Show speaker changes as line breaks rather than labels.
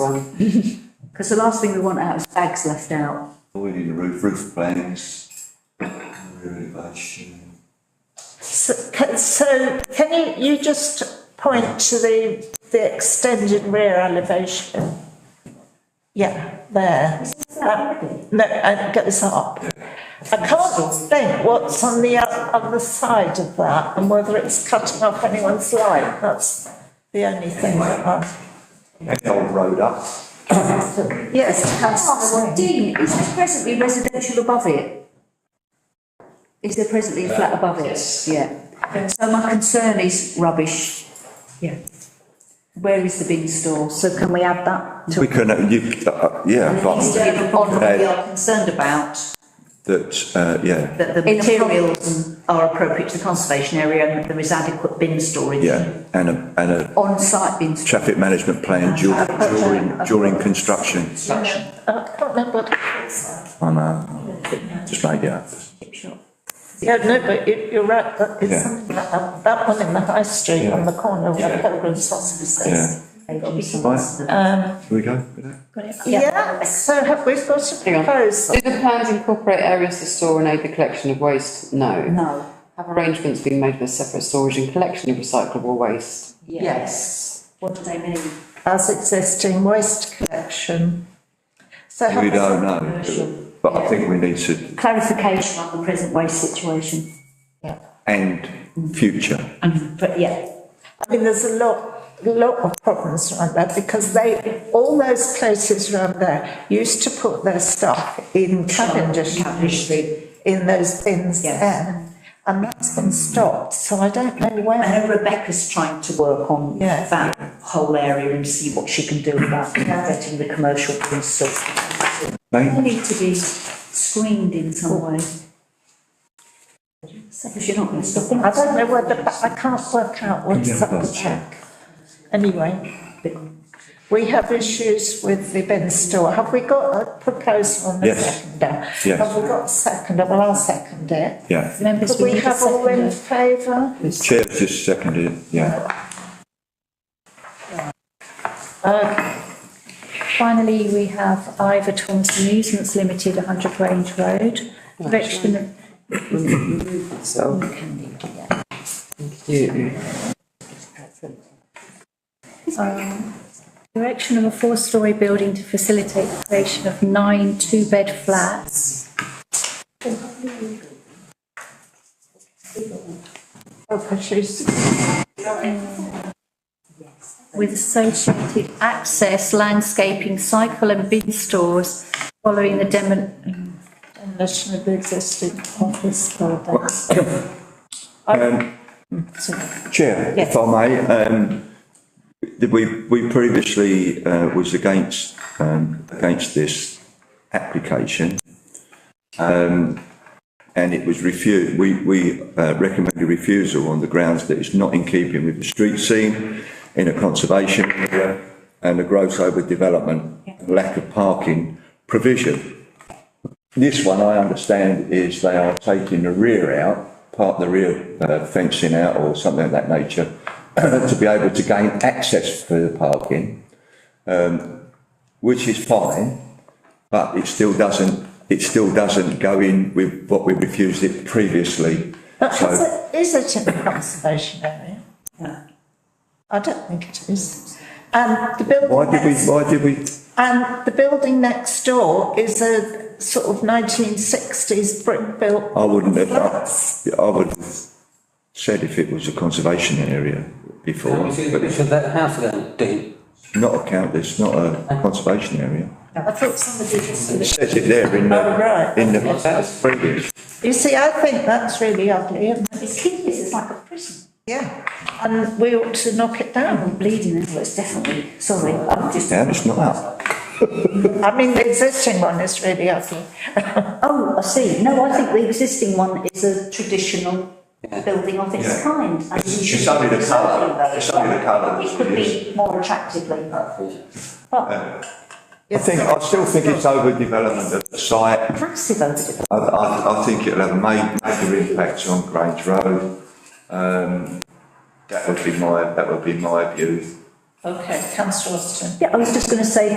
one. Because the last thing we want out is bags left out.
We need a roof, roof plans, renovation.
So, ca- so can you, you just point to the, the extended rear elevation? Yeah, there. Um, No, and get this up. I can't think what's on the o- other side of that and whether it's cutting off anyone's light, that's the only thing that I.
Old road up.
Yes,
Oh,
house. Dean, is there presently residential above it? Is there presently a flat above it? Yeah. So my concern is rubbish.
Yeah.
Where is the bin store?
So can we add that?
We can, uh, you, uh, yeah,
Needs to
but
be on what
Okay.
we are concerned about,
that, uh, yeah,
that the materials are appropriate to the conservation area and that there is adequate bin storage.
yeah, and a, and a
On-site bin storage.
traffic management plan during, during, during construction.
I can't remember what it is.
I know, just made it up.
Yeah, no, but you, you're right, that is
Yeah.
something like that, that one in the high street on the corner where Pilgrim's Hospice
Yeah.
is.
Right,
Um,
shall we go with that?
yeah, so have we got a
Hang on.
proposal?
Do the plans incorporate areas to store and aid the collection of waste? No.
No,
Have arrangements been made for separate storage and collection of recyclable waste?
yes. What do they mean?
As existing waste collection. So have
We
we
don't know, do we? but I think we need to,
Clarification on the present waste situation.
and future,
Um, But yeah,
I mean, there's a lot, lot of problems around that because they, all those places around there used to put their stuff in Cavendish Street, in those bins
Yes.
there. And that's been stopped, so I don't know
I
where.
know Rebecca's trying to work on
Yes.
that whole area and see what she can do about getting the commercial bin store. They
Main-
need to be screened in some way. Because you're not going to stop
I don't know whether, but I can't work out what's up the check. Anyway,
them.
we have issues with the bin store. Have we got a proposal on the
Yes.
seconder?
Yes.
Have we got a seconder? Well, I'll second it.
yeah.
Could we have all in favour?
Chair just seconded, it, yeah,
Finally, we have Ivor Thompson Amusements Limited, 100 Grange Road. Erection of
So. Thank you.
Erection of a four-storey building to facilitate the creation of nine two-bed flats. With associated access, landscaping, cycle and bin stores following the demon.
Demolition of the existing office building.
Um, Chair, if I may, um, th- we, we previously, uh, was against, um, against this application. Um, and it was refused, we, we, uh, recommended refusal on the grounds that it's not in keeping with the street scene in a conservation area and a gross overdevelopment, lack of parking provision. This one, I understand, is they are taking the rear out, part of the rear uh, fencing out or something of that nature, to be able to gain access for the parking, um, which is fine, but it still doesn't, it still doesn't go in with what we refused it previously.
But is
So,
it, is it in the conservation area? I don't think it is. And the
why
building
did we,
next,
why did we,
and the building next door is a sort of nineteen sixties brick built.
I wouldn't have,
flats.
I- I would have said if it was a conservation area before, but it's
So that house then, Dean,
not a count, it's not a conservation area.
I thought somebody just
It says it there in the,
Oh, right.
in the previous.
You see, I think that's really ugly, isn't it?
It's hideous, it's like a prison.
Yeah. And we ought to knock it down.
I'm bleeding as well, it's definitely, sorry, I'm just,
Yeah, it's not up.
I mean, the existing one is really ugly.
oh, I see. No, I think the existing one is a traditional building of its
Yeah.
kind. and
It's-
we
it's
should
only the
preserve
colour.
those.
It's only the colour
It
that's
could be
used.
more attractively.
I think, I still think it's overdevelopment of the site.
Massive overdevelopment.
I, I, I think it'll have a ma- major impact on Grange Road. Um, that would be my, that would be my view.
Okay, councillor Austin.
Yeah, I was just going to say